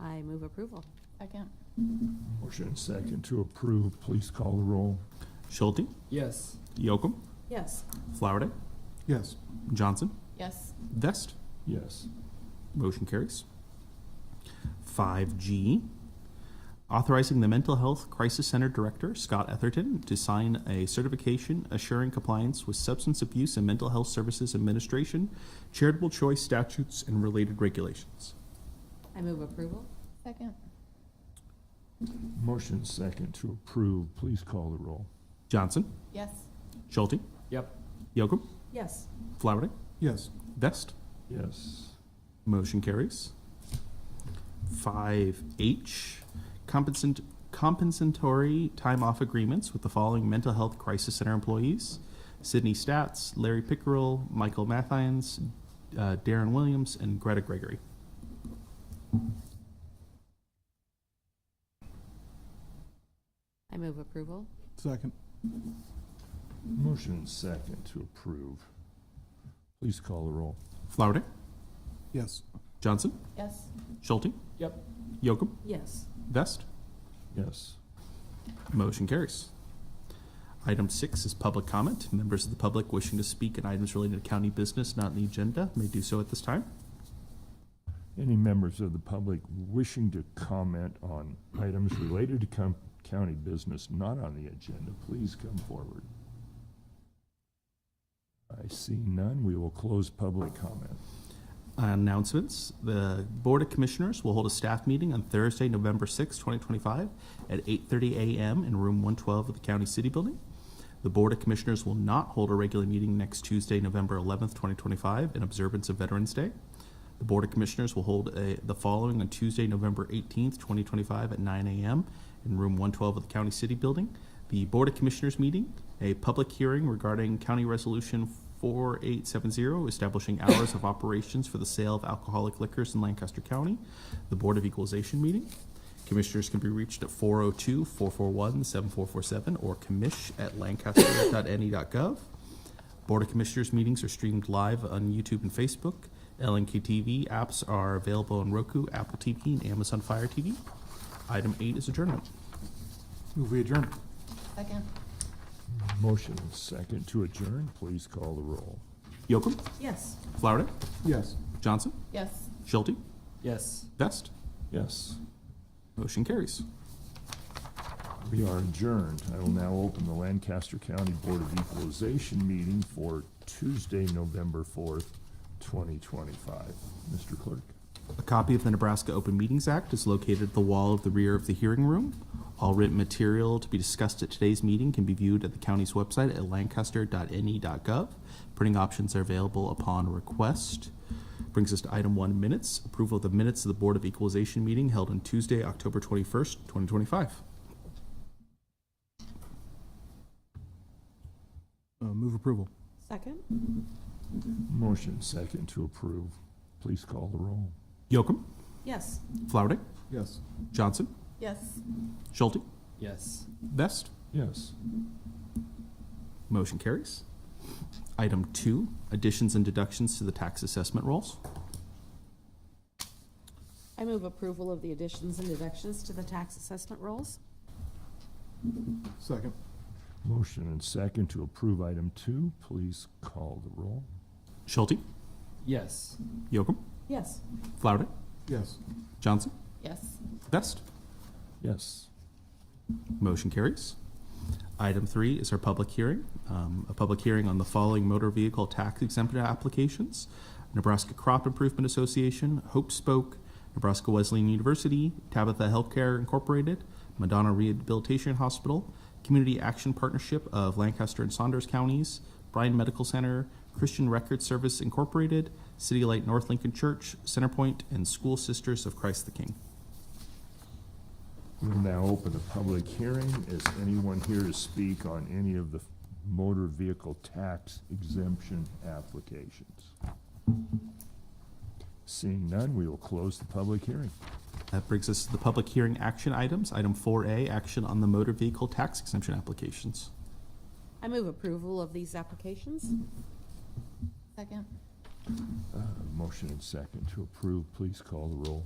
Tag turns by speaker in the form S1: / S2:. S1: I move approval.
S2: Second.
S3: Motion and second to approve. Please call the roll.
S4: Schulte,
S5: Yes.
S4: Yocum,
S1: Yes.
S4: Flowerday,
S3: Yes.
S4: Johnson,
S2: Yes.
S4: Vest.
S3: Yes.
S4: Motion carries. 5G, authorizing the Mental Health Crisis Center Director, Scott Etherton, to sign a certification assuring compliance with Substance Abuse and Mental Health Services Administration, charitable choice statutes, and related regulations.
S1: I move approval.
S2: Second.
S3: Motion and second to approve. Please call the roll.
S4: Johnson,
S2: Yes.
S4: Schulte,
S5: Yep.
S4: Yocum,
S1: Yes.
S4: Flowerday,
S3: Yes.
S4: Vest.
S3: Yes.
S4: Motion carries. Five H, compensant, compensatory time off agreements with the following mental health crisis center employees. Sydney Stats, Larry Pickerel, Michael Mathines, uh, Darren Williams, and Greta Gregory.
S1: I move approval.
S6: Second.
S3: Motion and second to approve. Please call the roll.
S4: Flowerday,
S6: Yes.
S4: Johnson,
S2: Yes.
S4: Schulte.
S5: Yep.
S4: Yocum,
S1: Yes.
S4: Vest.
S3: Yes.
S4: Motion carries. Item six is public comment. Members of the public wishing to speak on items related to county business not on the agenda may do so at this time.
S3: Any members of the public wishing to comment on items related to com- county business not on the agenda, please come forward. I see none. We will close public comment.
S4: Announcements. The Board of Commissioners will hold a staff meeting on Thursday, November 6, 2025, at 8:30 a.m. in Room 112 of the County City Building. The Board of Commissioners will not hold a regular meeting next Tuesday, November 11, 2025, in observance of Veterans Day. The Board of Commissioners will hold a- the following on Tuesday, November 18, 2025, at 9 a.m. in Room 112 of the County City Building. The Board of Commissioners meeting, a public hearing regarding County Resolution 4870, establishing hours of operations for the sale of alcoholic liquors in Lancaster County. The Board of Equalization meeting. Commissioners can be reached at 402 441 7447 or commish at E lancaster.ne.gov. Board of Commissioners meetings are streamed live on YouTube and Facebook. LNK TV apps are available on Roku, Apple TV, and Amazon Fire TV. Item eight is adjournment.
S6: Move we adjourn.
S2: Second.
S3: Motion and second to adjourn. Please call the roll.
S4: Yocum,
S1: Yes.
S4: Flowerday,
S6: Yes.
S4: Johnson,
S2: Yes.
S4: Schulte,
S5: Yes.
S4: Vest.
S3: Yes,
S4: Motion carries.
S3: we are adjourned. I will now open the Lancaster County Board of Equalization meeting for Tuesday, November 4th, 2025. Mr. Clerk?
S4: A copy of the Nebraska Open Meetings Act is located at the wall of the rear of the hearing room. All written material to be discussed at today's meeting can be viewed at the county's website at lancaster.ne.gov. Printing options are available upon request. Brings us to item one minutes approval of the minutes of the Board of Equalization meeting held on Tuesday, October 21st, 2025.
S6: Uh, move approval.
S1: Second?
S3: Motion second to approve. Please call the roll.
S4: Yocum,
S1: Yes.
S4: Flowerday,
S6: Yes.
S4: Johnson,
S2: Yes.
S4: Schulte,
S5: Yes.
S4: Best.
S3: Yes,
S4: Motion carries. Item two, additions and deductions to the tax assessment rolls.
S1: I move approval of the additions and deductions to the tax assessment rolls.
S6: Second.
S3: motion and second to approve item two. Please call the roll.
S4: Schulte,
S5: Yes.
S4: Yocum,
S1: Yes.
S4: Flowerday,
S6: Yes.
S4: Johnson,
S2: Yes.
S4: Best.
S3: Yes,
S4: Motion carries. Item three is our public hearing, um, a public hearing on the following motor vehicle tax exempt applications. Nebraska Crop Improvement Association, Hope Spoke, Nebraska Wesleyan University, Tabitha Healthcare Incorporated, Madonna Rehabilitation Hospital, Community Action Partnership of Lancaster and Saunders Counties, Bryan Medical Center, Christian Record Service Incorporated, City Light North Lincoln Church, Centerpoint, and School Sisters of Christ the King.
S3: we'll now open the public hearing. Is anyone here to speak on any of the motor vehicle tax exemption applications? Seeing none, we will close the public hearing.
S4: That brings us to the public hearing action items. Item 4A, action on the motor vehicle tax exemption applications.
S1: I move approval of these applications.
S2: Second.
S3: Uh, Motion and second to approve. Please call the roll.